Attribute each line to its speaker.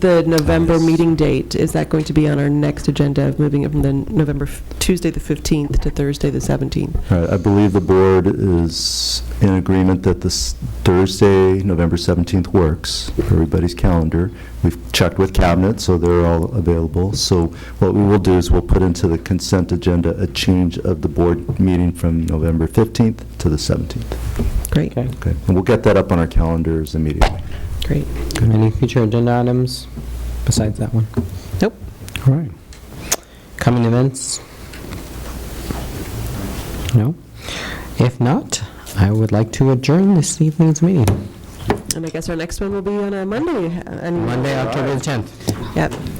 Speaker 1: The November meeting date, is that going to be on our next agenda of moving it from the November, f- Tuesday, the 15th to Thursday, the 17th?
Speaker 2: All right, I believe the board is in agreement that this Thursday, November 17th works for everybody's calendar. We've checked with cabinet, so they're all available. So what we will do is we'll put into the consent agenda a change of the board meeting from November 15th to the 17th.
Speaker 1: Great,
Speaker 3: Okay.
Speaker 2: Okay, and we'll get that up on our calendars immediately.
Speaker 1: great.
Speaker 3: Any future agenda items besides that one?
Speaker 1: Nope.
Speaker 3: All right. Coming events? No? If not, I would like to adjourn this evening's meeting.
Speaker 1: And I guess our next one will be on a Monday. uh, and-
Speaker 3: Monday, October the 10th.
Speaker 1: Yep.